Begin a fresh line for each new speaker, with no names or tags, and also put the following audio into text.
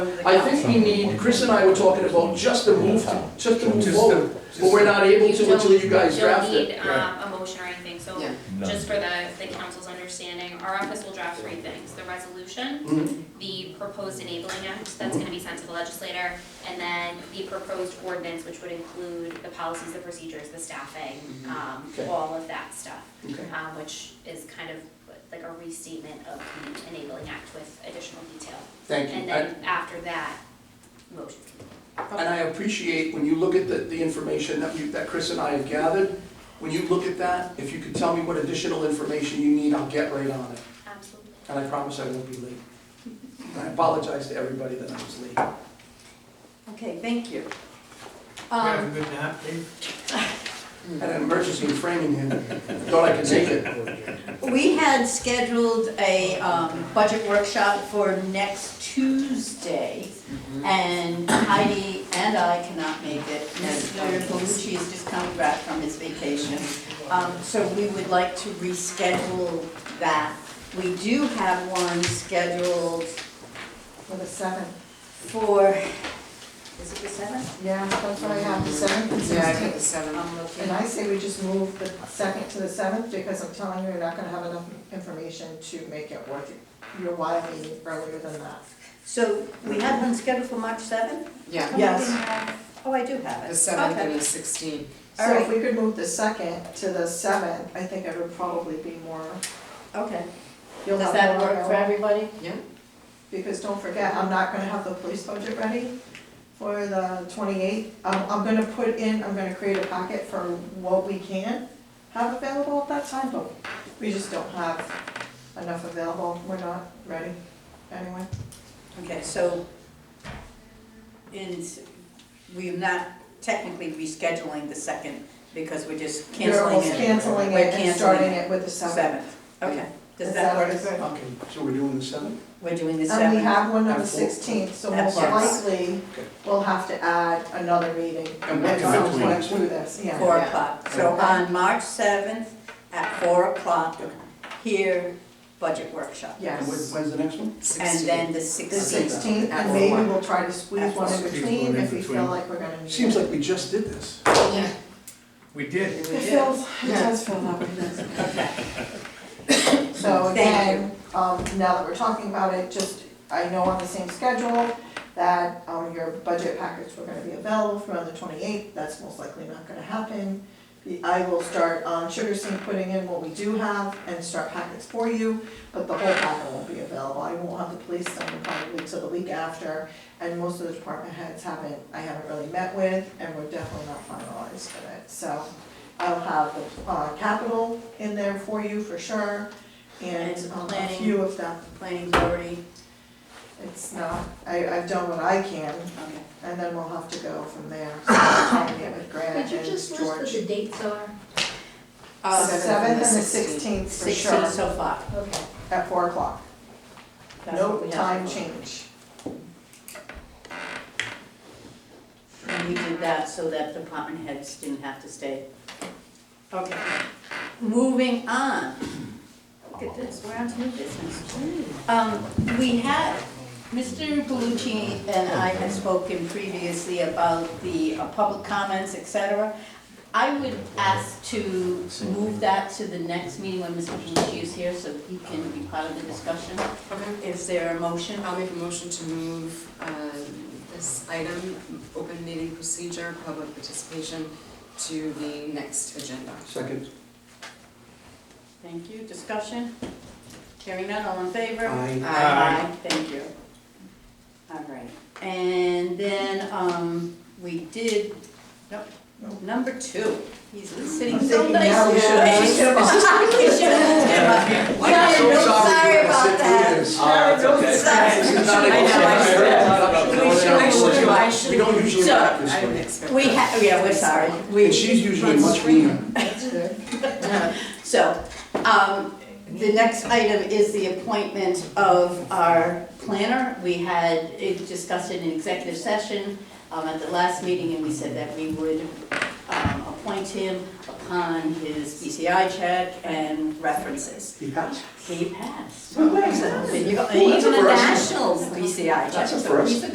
the
I
council.
think we need, Chris and I were talking about just the move, just the move
Just
forward,
the-
but we're not able to until you guys draft
You don't need
it.
um, a motion or anything, so
Yeah.
just for the, the council's understanding, our office will draft three things. The resolution,
Mhm.
the proposed enabling act that's gonna be sent to the legislator, and then the proposed ordinance, which would include the policies, the procedures, the staffing, um,
Mm-hmm. Okay.
all of that stuff.
Okay.
Um, which is kind of like a restatement of the enabling act with additional detail.
Thank you.
And
I-
then after that, motion.
And I appreciate when you look at the, the information that you, that Chris and I have gathered, when you look at that, if you could tell me what additional information you need, I'll get right on it.
Absolutely.
And I promise I won't be late. And I apologize to everybody that I was late.
Okay, thank you.
You
Um,
have a good nap, Dave?
I had an emergency in Framingham, thought I could make it.
Um, We had scheduled a um, budget workshop for next Tuesday, and Heidi and I cannot make it. Mr. Belucci has just come back from his vacation, Um, so we would like to reschedule that. We do have one scheduled
For the seventh,
for, is it the seventh?
yeah, that's what I have, the seventh and
Yeah, I think the
sixteenth.
seventh.
I'm looking.
And I say we just move the second to the seventh, because I'm telling you, you're not gonna have enough information to make it worth your while meeting earlier than that.
So we have one scheduled for March seventh?
Yeah,
Yes.
Oh, I do have it.
the seventh
Okay.
and the sixteenth.
So if we could move the second to the seventh, I think it would probably be more,
Okay.
you'll
Does
have
that
more
work for
available.
everybody?
Because don't forget, I'm not gonna have the police budget ready for the twenty-eighth. I'm, I'm gonna put in, I'm gonna create a packet for what we can have available at that time, but we just don't have enough available. We're not ready anyway.
Okay, so, and we're not technically rescheduling the second because we're just
we are
canceling
almost
it.
canceling
We're
it and
canceling
starting it with the seventh.
Seventh, okay. Does
Is
that
that
work?
good?
Okay, so we're doing the seventh?
We're doing the
And we
seventh.
have one on the
And four.
sixteenth, so most
Yes.
likely
Okay.
we'll have to add another meeting
And what
at
time?
some point through this, yeah.
Four
Yeah.
o'clock. So
Okay.
on March seventh at four o'clock, here, budget workshop.
And when-
Yes.
when's the next one?
And then the
The
sixteenth.
sixteenth, and maybe we'll try to squeeze one in between if we feel like we're gonna need it.
Seems like we just did this.
We did.
It feels, it does feel that way, doesn't it? So
Thank
again, um, now that we're talking about it, just, I know on the same schedule that, um, your budget packets were gonna be available for on the twenty-eighth, that's most likely not gonna happen. The- I will start, um, Sugar Sync putting in what we do have and start packets for you, but the whole packet won't be available, I won't have the police done probably till the week after. And most of the department heads haven't, I haven't really met with, and we're definitely not finalized with it, so. I'll have the, uh, capital in there for you for sure, and
And
um, a
planning.
few of them.
Planning board,
It's not, I, I've done what I can,
okay.
and then we'll have to go from there. So I'll try and get with Grant and
Could
George.
you just list what the dates are?
The
Uh,
seventh and the
16th.
sixteenth for
Sixteen
sure,
so far.
Okay.
at four o'clock.
That's
No
what we have.
time change.
And you did that so that department heads didn't have to stay. Okay. Moving on. Look at this, we're on to new business. Um, we had, Mr. Galucci and I had spoken previously about the uh, public comments, et cetera. I would ask to move that to the next meeting when Mr. Galucci is here, so he can be part of the discussion.
Okay,
Is there a motion?
I'll make a motion to move um, this item, open meeting procedure, public participation, to the next agenda.
Second.
Thank you, discussion? Hearing none, all in favor?
Aye.
Aye. Thank you. All right, and then, um, we did, nope, number two, he's sitting so
thinking now
nicely.
we should have just
We should have just-
I'm so
Sharon,
sorry
no, sorry
you had to
about
sit through
that.
this.
Sorry.
This is not a
I
motion. No, no, no,
know, I should- I should-
no.
I should-
We don't usually
So,
act this
I didn't
way.
expect
We
that.
ha, yeah, we're sorry,
And
we,
she's usually much meaner.
That's good.
so, um, the next item is the appointment of our planner. We had it discussed in an executive session, um, at the last meeting, and we said that we would, um, appoint him upon his BCI check and references.
He passed.
He passed.
Who
So,
was that?
there you go.
Ooh,
And
that's
He's
a
on a
first.
national BCI check,
That's a
so he's
first.